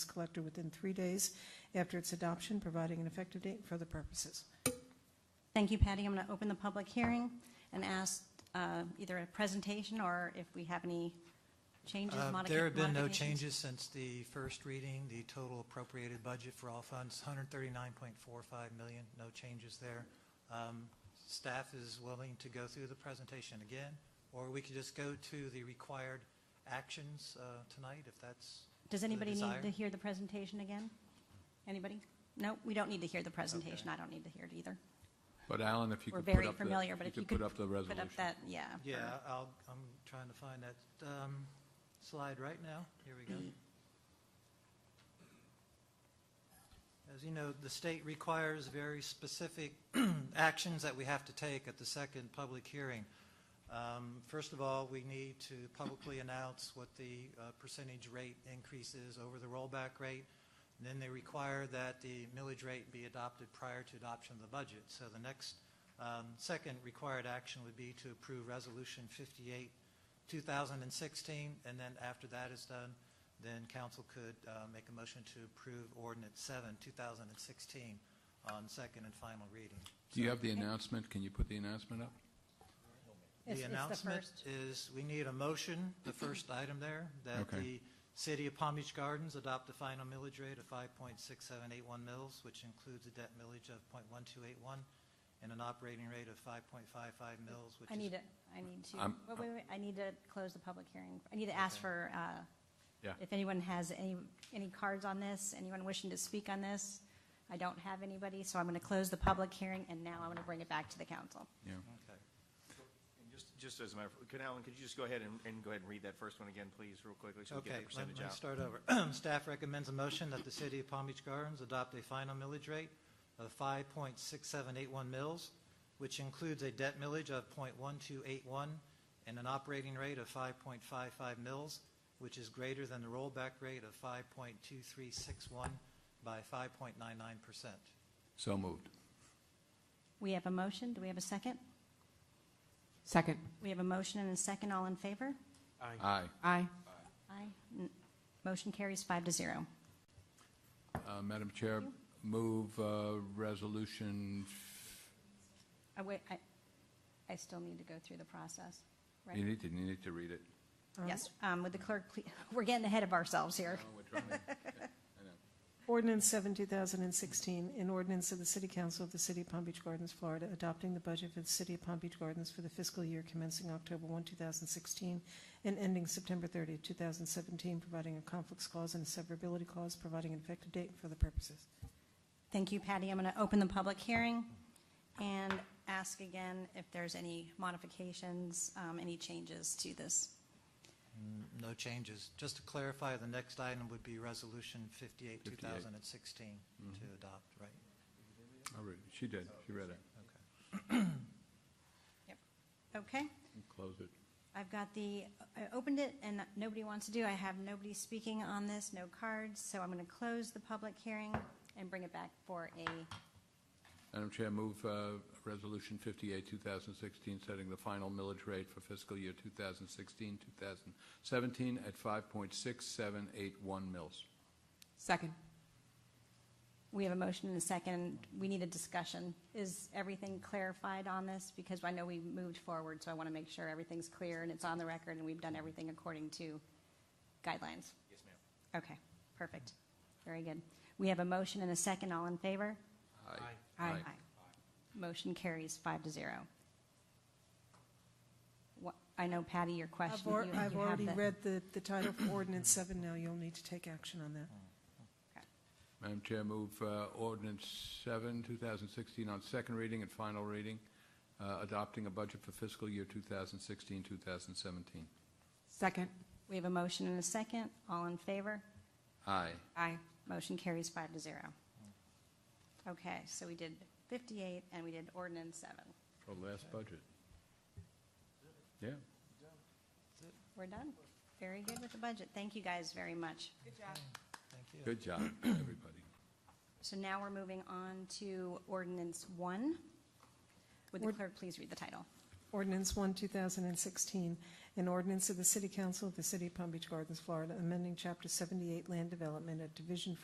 collector within three days after its adoption, providing an effective date for the purposes. Thank you, Patty. I'm going to open the public hearing and ask uh, either a presentation or if we have any changes, Uh, modica- There have been no modifications. changes since the first reading. The total appropriated budget for all funds, 139.45 million, no changes there. Um, Staff is willing to go through the presentation again, or we could just go to the required actions uh, tonight, if that's Does anybody need desire. to hear the presentation again? Anybody? No, we don't need to hear the presentation. I don't need to hear it either. But Alan, if you We're could put up the... very familiar, but if you could. put up the resolution. Put up that, yeah. for Yeah, I'll, I'm trying to find that um, slide right now. Here we go. As you know, the state requires very specific actions that we have to take at the second public hearing. Um, First of all, we need to publicly announce what the uh, percentage rate increase is over the rollback rate. And Then they require that the millage rate be adopted prior to adoption of the budget. So the next, um, second required action would be to approve Resolution 58, 2016, and then after that is done, then council could uh, make a motion to approve Ordinance 7, 2016, on second and final reading. Do you have the announcement? Can you put the announcement up? It's- The it's the announcement first. is, we need a motion, the first item there, that Okay. the City of Palm Beach Gardens adopt the final millage rate of 5.6781 mils, which includes a debt millage of .1281 and an operating rate of 5.55 mils, which I need is to, I need to, I'm- wait, wait, wait, I need to close the public hearing. I need to ask Okay. for, uh, Yeah. if anyone has any, any cards on this, anyone wishing to speak on this. I don't have anybody, so I'm going to close the public hearing, and now I'm going to bring it back to the council. Yeah. Okay. And Just, just as a matter of, could Alan, could you just go ahead and, and go ahead and read that first one again, please, real quickly, so we get Okay, the let percentage me out? start over. Staff recommends a motion that the City of Palm Beach Gardens adopt a final millage rate of 5.6781 mils, which includes a debt millage of .1281 and an operating rate of 5.55 mils, which is greater than the rollback rate of 5.2361 by 5.99%. So moved. We have a motion. Do we have a second? Second. We have a motion and a second. All in favor? Aye. Aye. Aye. N- Motion carries five to zero. Uh, Madam Chair, move uh, resolution, I wait, I, I still need to go through the process, you right? need to, you need to read it. Yes, um, would the clerk, please, we're getting ahead of ourselves here. Ordinance 7, 2016, an ordinance of the City Council of the City of Palm Beach Gardens, Florida, adopting the budget for the City of Palm Beach Gardens for the fiscal year commencing October 1, 2016, and ending September 30, 2017, providing a conflicts clause and a severability clause, providing an effective date for the purposes. Thank you, Patty. I'm going to open the public hearing and ask again if there's any modifications, um, any changes to this. No changes. Just to clarify, the next item would be Resolution 58, 58. 2016, to Mm-hmm. adopt, right? I'll read it. She did, she read it. Okay. Okay? Close it. I've got the, I opened it and nobody wants to do, I have nobody speaking on this, no cards, so I'm going to close the public hearing and bring it back for a Madam Chair, move uh, Resolution 58, 2016, setting the final millage rate for fiscal year 2016, 2017 at 5.6781 mils. Second. We have a motion and a second. We need a discussion. Is everything clarified on this? Because I know we moved forward, so I want to make sure everything's clear and it's on the record and we've done everything according to guidelines. Yes, ma'am. Okay, perfect. Very good. We have a motion and a second. All in favor? Aye. Aye. Motion carries five to zero. What- I know Patty, your I've question. al- you- I've you have already the- read the the title for ordinance 7 now, you'll need to take action on that. Madam Chair, move uh, ordinance 7, 2016, on second reading and final reading, uh, adopting a budget for fiscal year 2016, 2017. Second. We have a motion and a second. All in favor? Aye. Aye. Motion carries five to zero. Okay, so we did 58 and we did ordinance seven. For last budget. Yeah. We're done. Very good with the budget. Thank you guys very much. Thank you. Good job, everybody. So now we're moving on to ordinance one. Would the Ord- clerk please read the title? Ordinance 1, 2016, an ordinance of the City Council of the City of Palm Beach Gardens, Florida, amending Chapter 78 Land Development at Division